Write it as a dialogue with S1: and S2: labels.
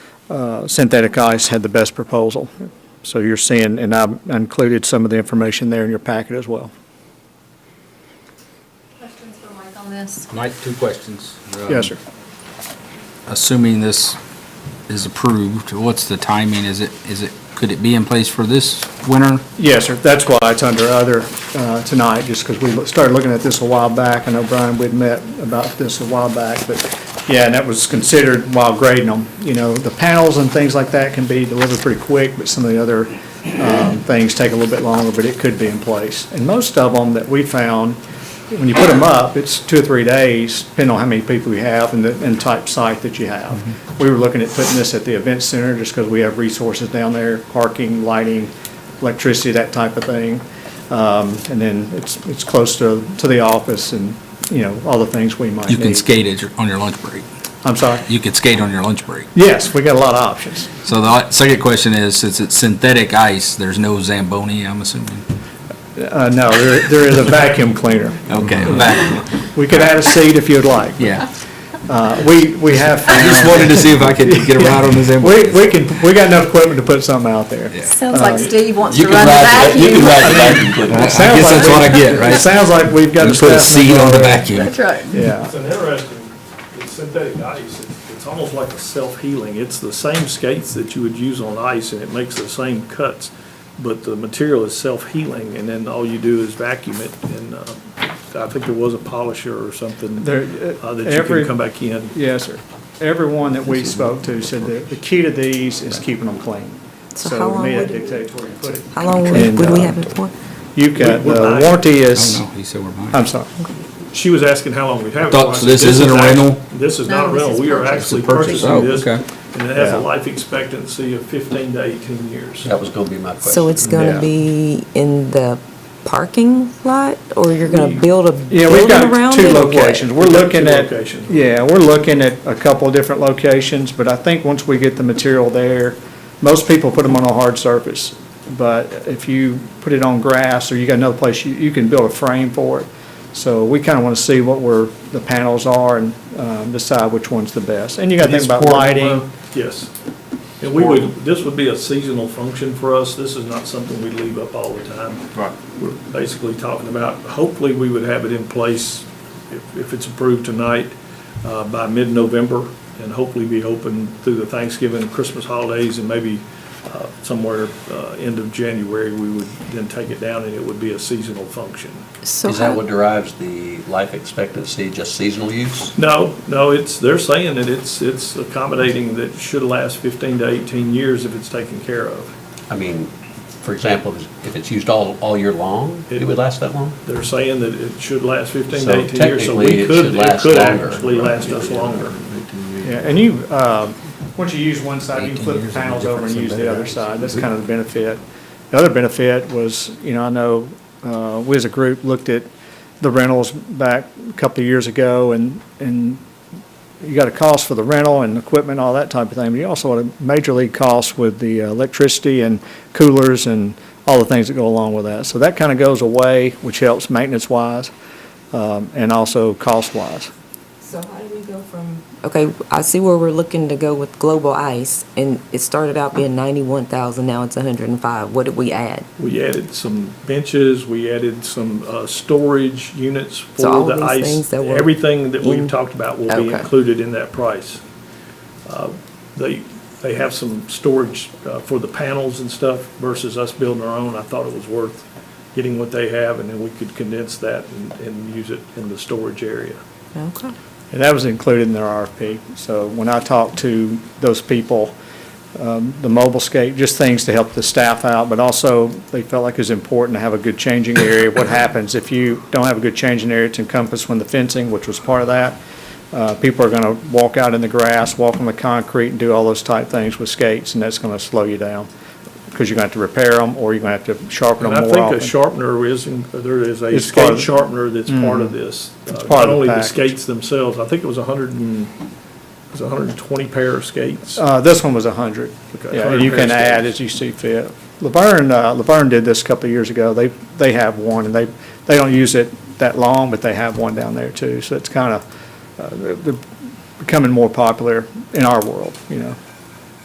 S1: uh, Synthetic Ice had the best proposal. So you're seeing, and I included some of the information there in your packet as well.
S2: Questions for Mike on this?
S3: Mike, two questions. Um,
S1: Yes, sir.
S3: Assuming this is approved, what's the timing? Is it, is it, could it be in place for this winter?
S1: Yes, sir, that's why it's under other uh, tonight, just because we started looking at this a while back. I know, Brian, we'd met about this a while back, but, yeah, and that was considered while grading them. You know, the panels and things like that can be delivered pretty quick, but some of the other um, things take a little bit longer, but it could be in place. And most of them that we found, when you put them up, it's two or three days, depending on how many people you have and the, and type site that you have.
S3: Mm-hmm.
S1: We were looking at putting this at the event center, just because we have resources down there, parking, lighting, electricity, that type of thing. Um, and then it's, it's close to, to the office and, you know, all the things we might need.
S3: You can skate it on your lunch break.
S1: I'm sorry?
S3: You could skate on your lunch break.
S1: Yes, we got a lot of options.
S3: So the la- second question is, since it's synthetic ice, there's no Zamboni, I'm assuming?
S1: Uh, no, there, there is a vacuum cleaner.
S3: Okay, back,
S1: We could add a seat if you'd like.
S3: yeah.
S1: Uh, we, we have found.
S3: I just wanted to see if I could get a ride on the
S1: We,
S3: Zamboni.
S1: we can, we got enough equipment to put something out there.
S3: Yeah.
S2: Sounds like Steve wants
S4: Uh, You
S2: to
S4: can
S2: run the
S4: ride, the- you can
S2: vacuum.
S4: ride the vacuum
S3: I
S4: cleaner.
S3: guess that's what I get,
S1: It
S3: right?
S1: sounds like we've got.
S3: You
S1: the
S3: put a
S1: staff
S3: seat on
S1: member-
S3: the vacuum.
S2: That's right.
S1: Yeah,
S5: It's an interesting, it's synthetic ice, It's- it's almost like a self-healing. It's the same skates that you would use on ice, and it makes the same cuts, but the material is self-healing, and then all you do is vacuum it, and uh, I think there was a polisher or something
S1: There-
S5: uh, that you
S1: every-
S5: can come back in.
S1: yes, sir. Everyone that we spoke to said that the key to these is keeping them clean.
S6: So
S1: So
S6: how
S1: to me,
S6: long
S1: that
S6: would it-
S1: dictates where you put it.
S6: How long
S1: And,
S6: would would we
S1: uh,
S6: have it for?
S1: You've got,
S5: We- we
S1: the
S5: buy-
S1: warranty
S3: Oh,
S1: is,
S3: no, he said we're buying.
S1: I'm sorry.
S5: She was asking how long we have it.
S3: Thought-
S5: for. I
S3: so
S5: said,
S3: this isn't a
S5: is act-
S3: rental?
S5: This is
S2: No,
S5: not a
S2: this
S5: rental.
S2: is
S5: We are
S2: purchase.
S5: actually
S3: It's a purchase.
S5: purchasing this,
S3: Oh, okay.
S5: and it has
S1: Yeah.
S5: a life expectancy of fifteen to eighteen years.
S4: That was gonna be my question.
S6: So it's going
S1: Yeah.
S6: to be in the parking lot, or you're going to build a
S1: Yeah, we've
S6: building
S1: got
S6: around
S1: two
S6: it?
S1: locations. We're
S5: We've got
S1: looking
S5: two
S1: at,
S5: locations.
S1: yeah, we're looking at a couple of different locations, but I think once we get the material there, most people put them on a hard surface. But if you put it on grass or you got another place, you, you can build a frame for it. So we kind of want to see what where the panels are and um, decide which one's the best. And you got to think about lighting.
S5: Yes. And we would, this would be a seasonal function for us. This is not something we leave up all the time. Right. We're basically talking about, hopefully, we would have it in place, if, if it's approved tonight, uh, by mid-November, and hopefully be open through the Thanksgiving and Christmas holidays, and maybe uh, somewhere, uh, end of January, we would then take it down, and it would be a seasonal function.
S6: So
S4: Is that what
S6: how-
S4: derives the life expectancy, just seasonal use?
S5: No, no, it's, they're saying that it's, it's accommodating that it should last 15 to 18 years if it's taken care of.
S4: I mean, for example, if it's used all, all year long, it would last that long?
S5: They're saying that it should last 15
S4: So
S5: to 18 years, so
S4: technically,
S5: we
S4: it
S5: could,
S4: should
S5: it
S4: last
S5: could
S4: longer.
S5: actually last us longer.
S1: Yeah, and you, um, once you use one side, you can
S3: 18
S1: flip the
S3: years is no
S1: panels over and
S3: different
S1: use
S3: than
S1: the
S3: that.
S1: other side. That's
S3: Mm-hmm.
S1: kind of the benefit. The other benefit was, you know, I know, uh, we as a group looked at the rentals back a couple of years ago and, and you got a cost for the rental and equipment, all that type of thing. But you also had a major league cost with the uh, electricity and coolers and all the things that go along with that. So that kind of goes away, which helps maintenance-wise, um, and also cost-wise.
S6: so how do we go from? Okay, I see where we're looking to go with Global Ice, and it started out being 91,000, now it's 105. What did we add?
S5: We added some benches, we added some uh, storage units for
S6: all
S5: the
S6: these things
S5: ice.
S6: that were
S5: Everything that
S6: in-
S5: we've talked about will be
S6: Okay.
S5: included in that price. Uh, They, they have some storage uh, for the panels and stuff versus us building our own. I thought it was worth getting what they have, and then we could condense that and, and use it in the storage area.
S6: Okay.
S1: And that was included in their RFP. So when I talked to those people, um, the mobile scape, just things to help the staff out, but also they felt like it was important to have a good changing area. What happens if you don't have a good changing area? It's encompassed when the fencing, which was part of that. Uh, People are going to walk out in the grass, walk on the concrete, and do all those type things with skates, and that's going to slow you down because you're going to have to repair them, or you're going to have to sharpen
S5: And
S1: them
S5: I
S1: more
S5: think a
S1: often.
S5: sharpener is, in- there is a
S1: It's part
S5: skate
S1: of- Mm.
S5: sharpener that's part of this. Uh,
S1: part of
S5: Not
S1: the
S5: only the
S1: package.
S5: skates themselves, I think it was a hundred and, it was a hundred and twenty pair of skates.
S1: Uh, This one was 100.
S5: Okay.
S1: Yeah, you can
S5: 100
S1: add
S5: pairs.
S1: as you see fit. Laverne, uh, Laverne did this a couple of years ago. They, they have one, and they, they don't use it that long, but they have one down there uh, too. So it's kind of, they're becoming more popular in our world, you know.